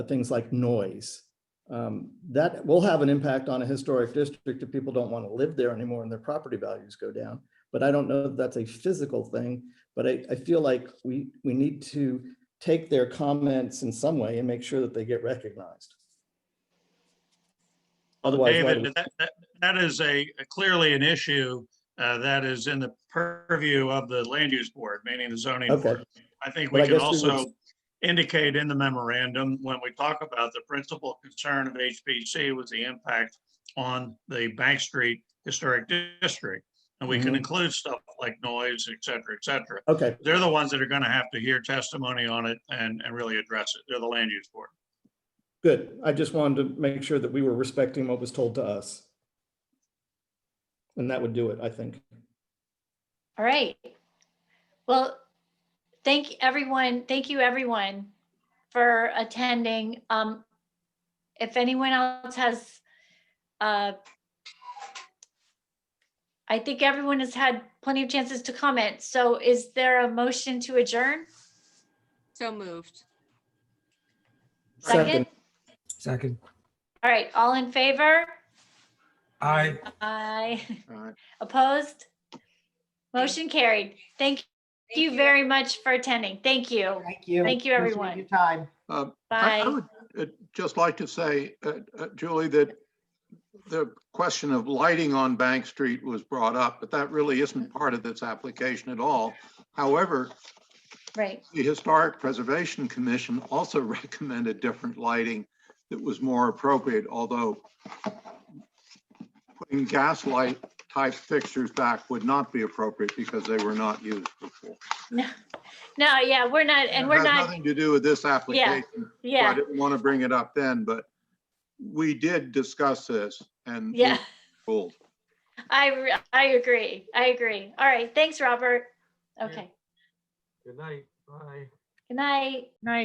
things like noise. Um, That will have an impact on a historic district if people don't want to live there anymore and their property values go down. But I don't know if that's a physical thing, but I, I feel like we, we need to take their comments in some way and make sure that they get recognized. Otherwise, why do- David, that, that- that is a, clearly an issue uh, that is in the purview of the land use board, meaning the zoning Okay. board. I think But we I can guess we would- also indicate in the memorandum, when we talk about the principal concern of HPC was the impact on the Bank Street Historic District. And we can Mhm. include stuff like noise, et cetera, et cetera. okay, They're the ones that are going to have to hear testimony on it and, and really address it. They're the land use board. good. I just wanted to make sure that we were respecting what was told to us. And that would do it, I think. All right. Well, thank everyone, thank you everyone for attending. Um, if anyone else has, uh, I think everyone has had plenty of chances to comment. So is there a motion to adjourn? So moved. Second? Second. All right, all in favor? Aye. Aye. Aye. Opposed? Motion carried. Thank you very much for attending. Thank you. Thank you. Thank you, Appreciate everyone. Your time. Uh, I- I Bye. would uh, just like to say, uh, uh, Julie, that the question of lighting on Bank Street was brought up, but that really isn't part of this application at all. However, Right. the Historic Preservation Commission also recommended different lighting that was more appropriate, although putting gaslight type fixtures back would not be appropriate because they were not used before. No, no, yeah, we're not, and we're Has not, Nothing to do with this application. So I yeah, didn't want to bring it up then, but we did discuss this and. we yeah. ruled. I, re- I agree. I agree. All right. Thanks, Robert. Okay. Good night. Bye. Good night.